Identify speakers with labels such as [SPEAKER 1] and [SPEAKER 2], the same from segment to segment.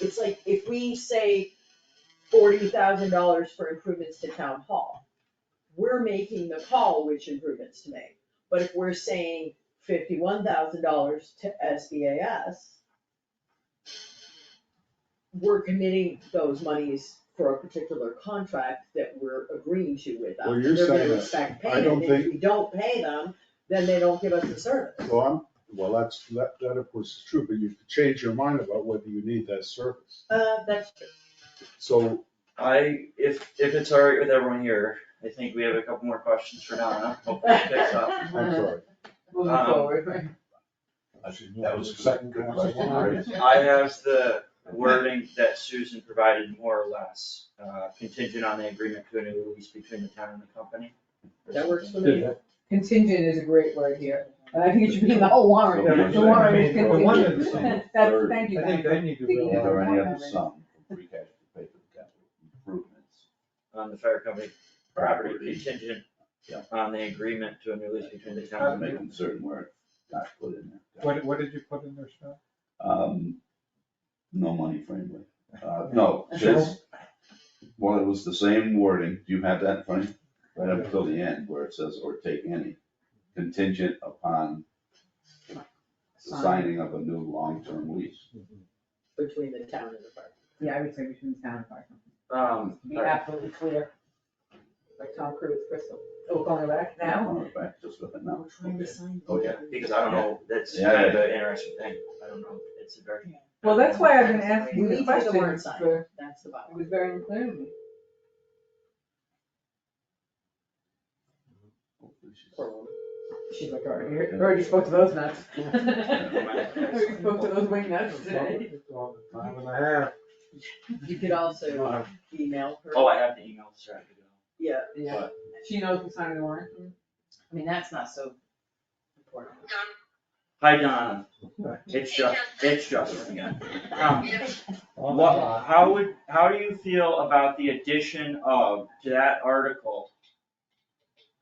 [SPEAKER 1] It's like if we say forty thousand dollars for improvements to town hall, we're making the call which improvements to make. But if we're saying fifty-one thousand dollars to SBAS, we're committing those monies for a particular contract that we're agreeing to with them.
[SPEAKER 2] Well, you're
[SPEAKER 1] They're gonna
[SPEAKER 2] saying that-
[SPEAKER 1] expect
[SPEAKER 2] I
[SPEAKER 1] payment.
[SPEAKER 2] don't
[SPEAKER 1] If
[SPEAKER 2] think-
[SPEAKER 1] we don't pay them, then they don't give us the service.
[SPEAKER 2] Well, I'm, well, that's, that, that of course is true, but you could change your mind about whether you need that service.
[SPEAKER 1] Uh, that's true.
[SPEAKER 2] So,
[SPEAKER 3] I, if, if it's all right with everyone here, I think we have a couple more questions for Donna, hopefully it picks up.
[SPEAKER 2] I'm
[SPEAKER 4] Uh-huh.
[SPEAKER 2] sorry.
[SPEAKER 4] Moving
[SPEAKER 3] Um,
[SPEAKER 4] forward, right?
[SPEAKER 5] That was second good question, right?
[SPEAKER 3] I have the wording that Susan provided more or less, uh, contingent on the agreement to a new lease between the town and the company. or
[SPEAKER 1] That works for
[SPEAKER 3] something.
[SPEAKER 1] me.
[SPEAKER 4] Contingent is a great word here, and I think it should be in the whole warrant,
[SPEAKER 5] Yeah,
[SPEAKER 4] the warrant is
[SPEAKER 5] I mean, the one
[SPEAKER 4] contingent.
[SPEAKER 5] that's in the
[SPEAKER 4] That's,
[SPEAKER 5] third,
[SPEAKER 4] thank you,
[SPEAKER 5] I think
[SPEAKER 4] Diane.
[SPEAKER 5] need
[SPEAKER 4] Think you
[SPEAKER 5] Is there
[SPEAKER 4] can-
[SPEAKER 5] any other sum from free cash to pay for the capital improvements?
[SPEAKER 3] On the fire company property contingent
[SPEAKER 5] Yeah.
[SPEAKER 3] on the agreement to a new lease between the
[SPEAKER 5] I'm
[SPEAKER 3] town and the
[SPEAKER 5] making certain where it's not put in there.
[SPEAKER 6] What, what did you put in there, Scott?
[SPEAKER 5] Um, no money friendly, uh, no, just, well, it was the same wording, do you have that in front of you? Right up until the end where it says, or take any contingent upon the signing of a new long-term lease.
[SPEAKER 1] between the town and the park.
[SPEAKER 4] Yeah, I would say between town and fire company,
[SPEAKER 3] Um,
[SPEAKER 4] to be
[SPEAKER 3] alright,
[SPEAKER 4] absolutely clear. Like Tom Cruise, Crystal, oh, we're going back now?
[SPEAKER 5] All right, back, just with it now. Okay.
[SPEAKER 1] sign.
[SPEAKER 5] Oh, yeah.
[SPEAKER 3] because I don't know, that's
[SPEAKER 5] Yeah.
[SPEAKER 3] kind of an interesting thing, I don't know, it's a very.
[SPEAKER 4] Well, that's why I've been
[SPEAKER 1] We
[SPEAKER 4] asking
[SPEAKER 1] need
[SPEAKER 4] the
[SPEAKER 1] to get the warrant
[SPEAKER 4] questions,
[SPEAKER 1] signed,
[SPEAKER 4] for it
[SPEAKER 1] that's the bottom.
[SPEAKER 4] was very unclear to me.
[SPEAKER 5] Hopefully she's-
[SPEAKER 4] She's like, already, heard- already spoke to those nuts. Already
[SPEAKER 3] Already
[SPEAKER 4] spoke to those wing nuts today.
[SPEAKER 6] Well, Five and a half.
[SPEAKER 1] You could also email her.
[SPEAKER 3] Oh, I have the email, sorry. I could go.
[SPEAKER 1] Yeah,
[SPEAKER 4] Yeah, she knows who signed the warrant.
[SPEAKER 1] I mean, that's not so important.
[SPEAKER 7] Um,
[SPEAKER 3] Hi Donna, it's Ju- it's Justin again. Um, what, how would, how do you feel about the addition of, to that article?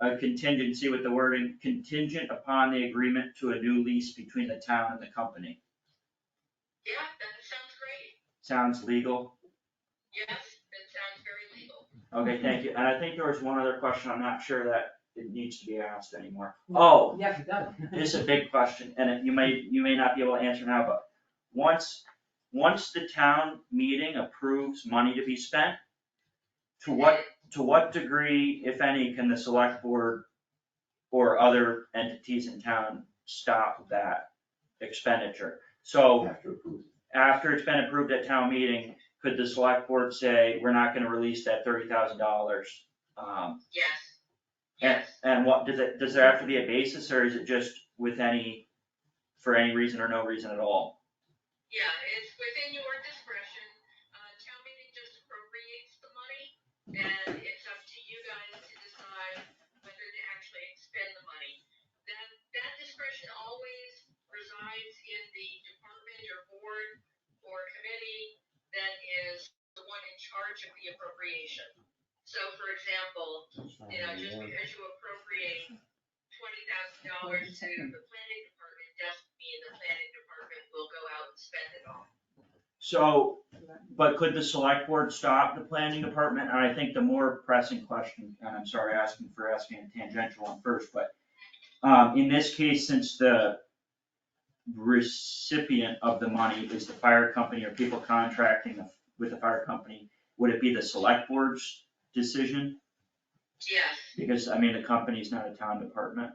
[SPEAKER 3] A contingency with the wording contingent upon the agreement to a new lease between the town and the company.
[SPEAKER 7] Yeah, that sounds great.
[SPEAKER 3] Sounds legal?
[SPEAKER 7] Yes, that sounds very legal.
[SPEAKER 3] Okay, thank you. And I think there was one other question, I'm not sure that it needs to be asked anymore. Oh,
[SPEAKER 4] Yes, it does.
[SPEAKER 3] this is a big question, and it- you may, you may not be able to answer now, but once, once the town meeting approves money to be spent, to what, to what degree, if any, can the select board or other entities in town stop that expenditure? So
[SPEAKER 5] After approval.
[SPEAKER 3] after it's been approved at town meeting, could the select board say, we're not gonna release that thirty thousand dollars? Um,
[SPEAKER 7] Yes.
[SPEAKER 3] and,
[SPEAKER 7] Yes,
[SPEAKER 3] and what, does it, does there have to be a basis, or is it just with any, for any reason or no reason at all?
[SPEAKER 7] yeah, it's within your discretion. Uh, town meeting just appropriates the money and it's up to you guys to decide whether to actually expend the money. That, that discretion always resides in the department or board or committee that is the one in charge of the appropriation. So for example, You know, just because you appropriate twenty thousand dollars to the planning department, doesn't mean the planning department will go out and spend it all.
[SPEAKER 3] So, but could the select board stop the planning department, and I think the more pressing question, and I'm sorry asking for asking a tangential one first, but um, in this case, since the recipient of the money is the fire company or people contracting with the fire company, would it be the select board's decision?
[SPEAKER 7] Yes,
[SPEAKER 3] Because, I mean, the company's not a town department.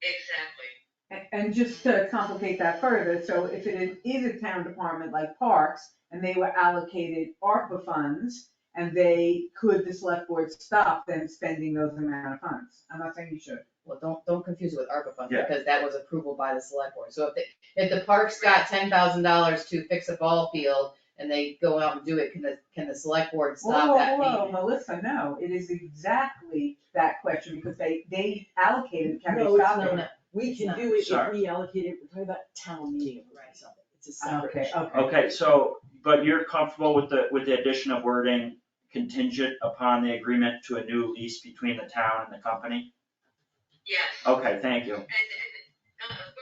[SPEAKER 7] exactly.
[SPEAKER 4] And- And just to complicate that further, so if it is- is a town department like Parks, and they were allocated ARPA funds, and they, could the select board stop them spending those amount of funds? I'm not saying you should.
[SPEAKER 8] Well, don't, don't confuse it with ARPA funds,
[SPEAKER 3] Yeah.
[SPEAKER 8] because that was approval by the select board, so if the, if the parks got ten thousand dollars to fix a ball field and they go out and do it, can the, can the select board stop that
[SPEAKER 4] Whoa, whoa, whoa,
[SPEAKER 8] payment?
[SPEAKER 4] Melissa, no, it is exactly that question, because they, they allocated, can
[SPEAKER 1] No,
[SPEAKER 4] they
[SPEAKER 1] it's
[SPEAKER 4] stop
[SPEAKER 1] not.
[SPEAKER 4] it?
[SPEAKER 1] We can do it if we allocate it, we're talking about town meeting, right, something, it's a separate
[SPEAKER 4] Okay,
[SPEAKER 1] issue.
[SPEAKER 4] okay.
[SPEAKER 3] Okay, so, but you're comfortable with the, with the addition of wording contingent upon the agreement to a new lease between the town and the company?
[SPEAKER 7] Yes,
[SPEAKER 3] Okay, thank you.
[SPEAKER 7] and, and, uh, uh,